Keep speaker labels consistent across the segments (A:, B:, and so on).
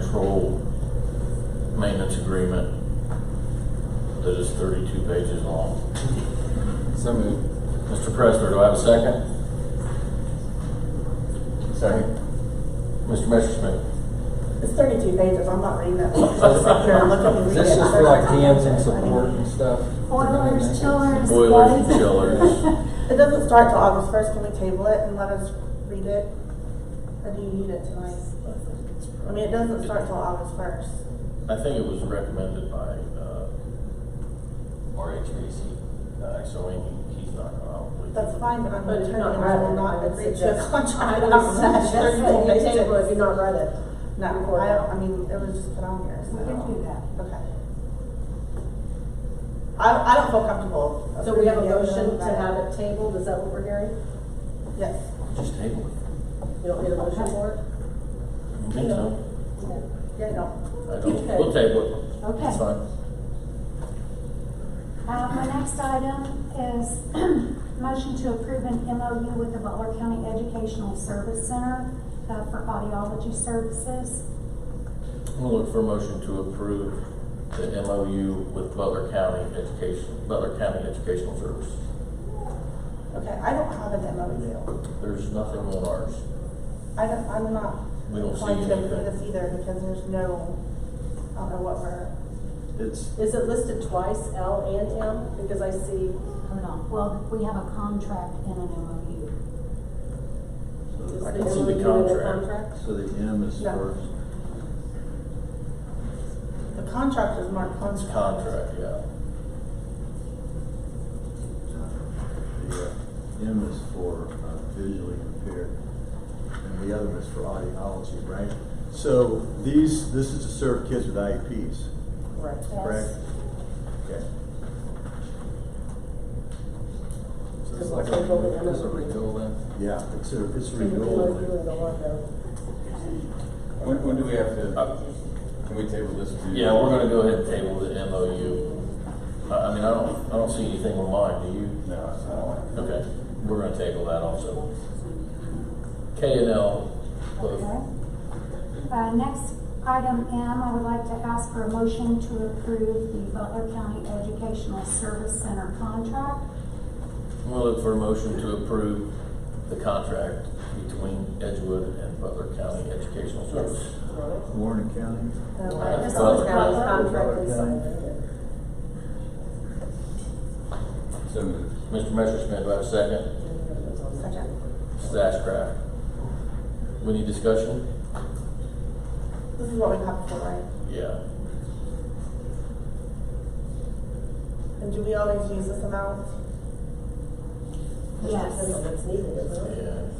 A: control maintenance agreement that is thirty-two pages long.
B: So moved.
A: Mr. Pressler, do I have a second?
B: Second.
A: Mr. Messerschmidt?
C: It's thirty-two pages, I'm not reading that. Just sit here and look at me read
B: This
C: it.
B: is for like hands and support and stuff.
D: Oh, Boilers, chillers.
A: Boilers and
D: floods.
A: chillers.
C: It doesn't start till August first, can we table it and let us read it? Or do you need it tonight? I mean, it doesn't start till August first.
A: I think it was recommended by, uh, RHAC, uh, so Amy, he's not gonna, I don't believe.
C: That's fine, but I'm
E: But
C: attorney and
E: if you're not
C: I will
E: ready,
C: not
E: I would
C: agree to a
E: suggest-
C: contract.
E: I would
C: That's
E: suggest that you table it if you're not read it.
C: No,
E: Before
C: I,
E: that.
C: I mean, it was just put on here, so.
D: We can do that.
C: Okay. I, I don't feel comfortable.
E: So we have a
C: approving it without
E: motion to
C: that.
E: have it tabled, is that what we're hearing?
C: Yes.
A: Just table it.
E: You don't need a motion for it?
A: I don't think so.
C: Yeah, no.
A: I don't, we'll table it.
D: Okay.
A: It's fine.
D: Uh, my next item is motion to approve an MOU with the Butler County Educational Service Center uh, for audiology services.
A: We'll look for a motion to approve the MOU with Butler County Education, Butler County Educational Service.
C: Okay, I don't have an MOU.
A: There's nothing on ours.
C: I don't, I'm not.
A: We don't see
C: inclined to approve
A: anything.
C: This either, because there's no, I don't know what we're,
A: It's,
E: Is it listed twice, L and M? Because I see,
D: Hold on, well, we have a contract and an MOU.
E: is
A: I
E: the
A: can see the
E: MOU in the
A: contract.
E: contract?
F: So the M is
C: Yeah.
F: first.
C: the contract is marked
A: It's
C: contract.
A: contract, yeah.
F: The uh, M is for uh, visually impaired, and the other is for audiology, right? So these, this is to serve kids with IEPs,
C: Right.
F: correct? Okay.
E: This is like a- this is a renewal
A: then?
F: Yeah, it's a, it's a
E: Can we
F: renewal.
E: review the one though?
G: When, when do we have to, uh, can we table this? to-
A: Yeah, we're gonna go ahead and table the MOU. I, I mean, I don't, I don't see anything on mine, do you?
G: No, it's not.
A: Okay, we're gonna table that also. K and L,
D: Okay.
A: both.
D: Uh, next item M, I would like to ask for a motion to approve the Butler County Educational Service Center contract.
A: We'll look for a motion to approve the contract between Edgewood and Butler County Educational Service.
F: Warren County,
C: No,
E: Right,
C: I-
E: This is
A: Butler.
E: the county's contract is signed.
G: So moved.
A: Mr. Messerschmidt, do I have a second?
C: Second.
A: Mrs. Ashcraft. We need discussion?
C: This is what we have before, right?
A: Yeah.
C: And do we always use this amount?
D: Yes.
E: Depends on what's needed, isn't it?
A: Yeah.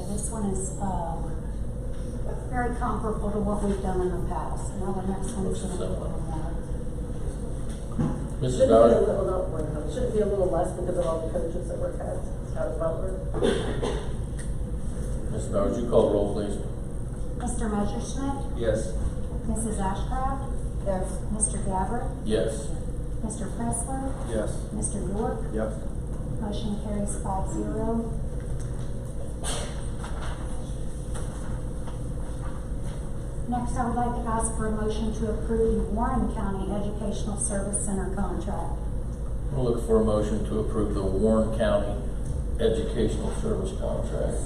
D: Yeah, this one is, uh, very comparable to what we've done in the past. Now the next one's gonna be a little more.
A: Mrs.
E: Shouldn't be a
A: Bowers?
E: little, not one, hundred. shouldn't be a little less because of all the coaches that work out, out of Butler.
A: Mrs. Bowers, you call roll, please.
D: Mr. Messerschmidt,
G: Yes.
D: Mrs. Ashcraft,
C: Yes.
D: Mr. Gabbard,
A: Yes.
D: Mr. Pressler,
G: Yes.
D: Mr. York.
F: yep.
D: Motion carries five zero. Next, I would like to ask for a motion to approve the Warren County Educational Service Center contract.
A: We'll look for a motion to approve the Warren County Educational Service Contract.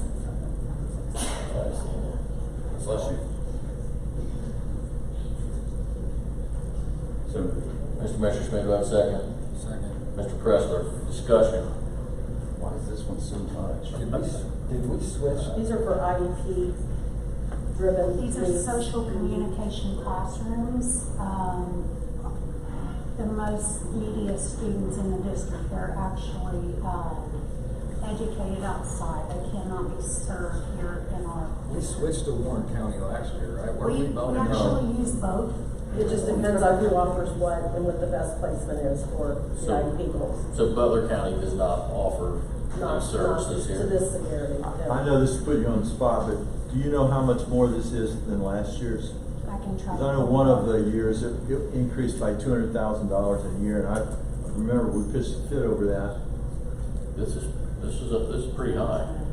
A: I see.
G: Bless you. So moved.
A: Mr. Messerschmidt, do I have a second?
B: Second.
A: Mr. Pressler, discussion.
G: Why is this one so much?
B: Did we, s- did we switch?
E: These are for IEP driven.
D: These are social communication classrooms. Um, The most media students in the district, they're actually uh, educated outside. They cannot be served here in our.
B: We switched to Warren County last year, right? Were
D: We we
B: voting?
D: actually use both.
E: It just depends on who offers what and what the best placement is for the IEP goals.
A: So Butler County does not offer
E: Not,
A: these
E: not
A: services here?
E: to this severity. no.
F: I know this put you on the spot, but do you know how much more this is than last year's?
D: I can try.
F: Because I know one of the years, it it increased by two hundred thousand dollars a year, and I remember we pitched a fit over that.
A: This is, this is, a- this is pretty high.